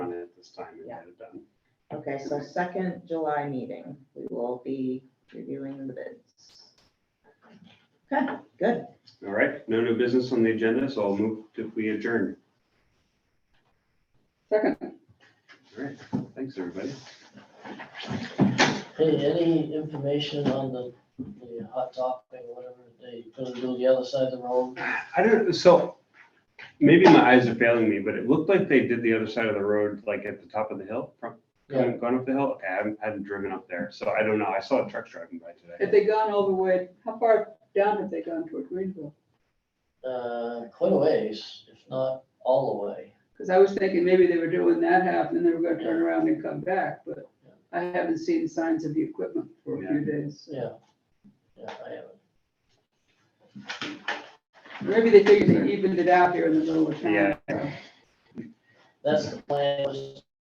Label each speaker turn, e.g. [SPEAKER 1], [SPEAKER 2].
[SPEAKER 1] this time and get it done.
[SPEAKER 2] Okay, so second July meeting, we will be reviewing the bids. Okay, good.
[SPEAKER 1] All right, no new business on the agenda, so I'll move if we adjourn.
[SPEAKER 3] Second.
[SPEAKER 1] All right, thanks, everybody.
[SPEAKER 4] Hey, any information on the, the hot topping, whatever they gonna do the other side of the road?
[SPEAKER 1] I don't, so maybe my eyes are failing me, but it looked like they did the other side of the road, like at the top of the hill, from,
[SPEAKER 4] Yeah,
[SPEAKER 1] going, going up the hill. Okay, I haven't, I haven't driven up there, so I don't know. I saw trucks driving by today.
[SPEAKER 3] Have they gone over where, how far down have they gone toward Greenville?
[SPEAKER 4] uh, quite a ways, if not all the way.
[SPEAKER 3] Because I was thinking maybe they were doing that half and then they were gonna turn around and come back, but I haven't seen signs of the equipment for a few days.
[SPEAKER 4] Yeah. Yeah, I haven't.
[SPEAKER 3] Maybe they figured they evened it out here in the middle of
[SPEAKER 1] Yeah.
[SPEAKER 3] town.
[SPEAKER 4] That's the plan, was